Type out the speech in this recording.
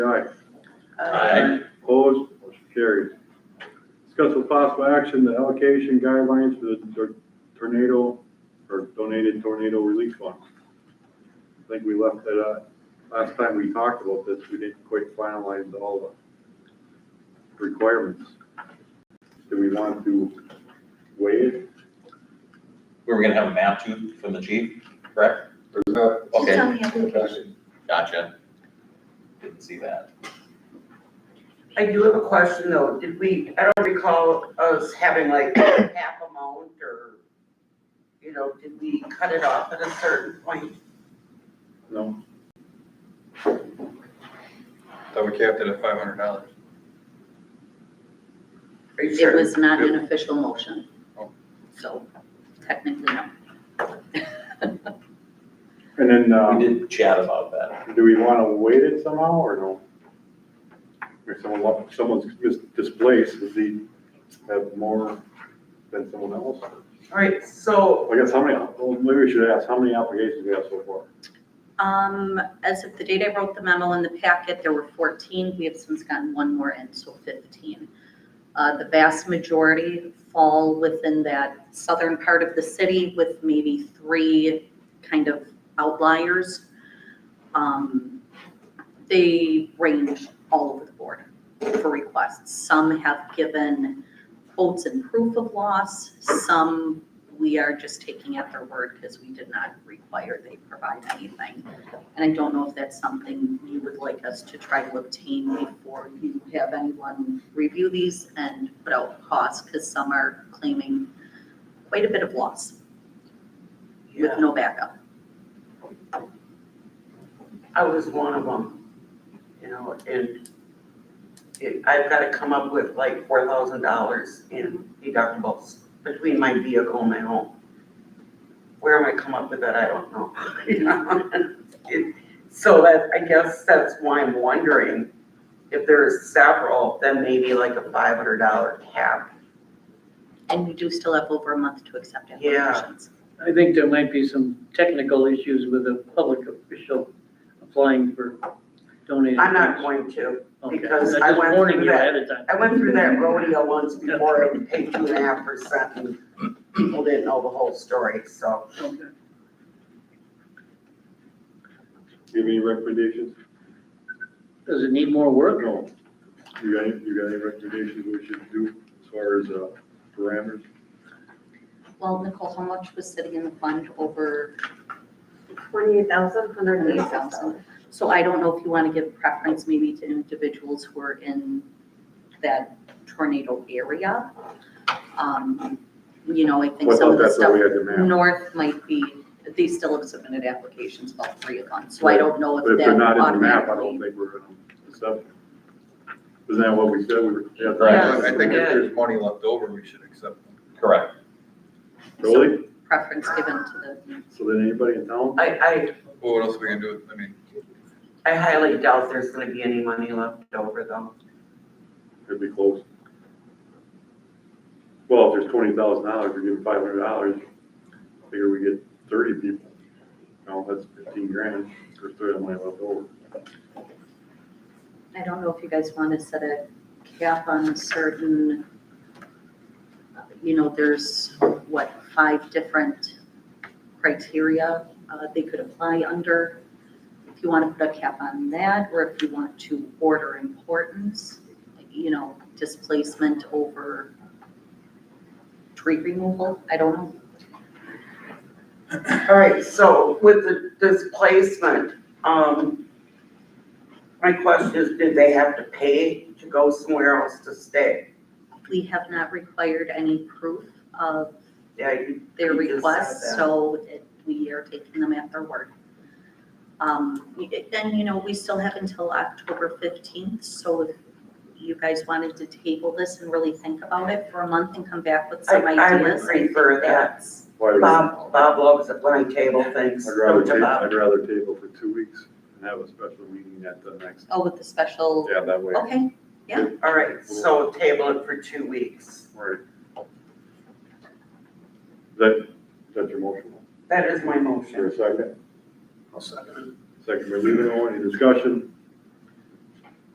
Uh, possible action, the allocation guidelines for the tor- tornado or donated tornado relief fund. I think we left that out. Last time we talked about this, we didn't quite finalize all the requirements. Do we want to weigh it? We were gonna have a map too from the chief, correct? There's not It's Okay, on the application. gotcha. Didn't see that. I do have a question though, did we, I don't recall us having like half amount or, you know, did we cut it off at a certain point? No? that we capped it at five hundred dollars. Are you It sure? was not an official motion. Oh. So technically, no. And then, uh, We did chat about that. do we want to weight it somehow or no? Or someone, lo- someone's mis- displaced, does he have more than someone else? All right, so I guess how many, well, maybe we should ask, how many applications we have so far? Um, as of the date I wrote the memo in the packet, there were 14. We have since gotten one more in, so 15. Uh, the vast majority fall within that southern part of the city with maybe three kind of outliers. Um, they range all over the board for requests. Some have given quotes and proof of loss. Some we are just taking at their word because we did not require they provide anything. And I don't know if that's something you would like us to try to obtain before you have anyone review these and put out costs, because some are claiming quite a bit of loss with yeah, no backup. I was one of them, you know, and it, I've gotta come up with like four thousand dollars in deductibles between my vehicle and my home. Where am I come up with that? I don't know. You know? It- So that, I guess that's why I'm wondering if there's several, then maybe like a five hundred dollar cap. And we do still have over a month to accept Yeah. applications. I think there might be some technical issues with a public official applying for donated. I'm not going funds. to. Okay. because I'm I went Just warning through you that. ahead of time. I went through that rodeo once before and paid two and a half percent and people didn't know the whole story, so. Okay. Do you have any recommendations? Does it need more work? No. You got, any- you got any recommendations we should do as far as, uh, parameters? Well, Nicole, how much was sitting in the fund over Twenty-eight thousand, hundred and eight 108,000? thousand. So I don't know if you want to give preference maybe to individuals who are in that tornado area. Um, You know, I think Well, I some thought of the that's why we stuff had the map. north might be, they still have submitted applications, about three of them. So I Right. don't know But if if they're that not in the map, I automatically. don't think we're gonna accept. them. Isn't that what we said? We were. yeah, Right. I think if Yeah. there's money left over, we should accept it. Correct. Really? Preference given to the, So then anybody in town? I, Well, what else are we gonna do? with- I mean, I, I highly doubt there's gonna be any money left over though. It'd be close. Well, if there's twenty thousand dollars, we're giving five hundred dollars, figure we get thirty people. No, that's fifteen grand, there's thirty of money left over. I don't know if you guys want to set a cap on a certain, you know, there's, what, five different criteria uh, they could apply under. If you want to put a cap on that, or if you want to order importance, you know, displacement over tree removal, I don't know. All right, so with the displacement, um, my question is, did they have to pay to go somewhere else to stay? We have not required any proof of Yeah, you, their We just request, said that. so it- we are taking them at their word. Um, we- Then, you know, we still have until October 15th, so if you guys wanted to table this and really think about it for a month and come back with I, some I would ideas. prefer that. That's, Why would- Bob, Bob loves it when I table things, I'd rather don't you, table, Bob? I'd rather table for two weeks and have a special meeting at the next, oh, with the special, yeah, that way. okay, All right, so table it for two weeks. Right. Is That, is that your motion? That is my motion. Sure, second, I'll second second by Levin, any discussion?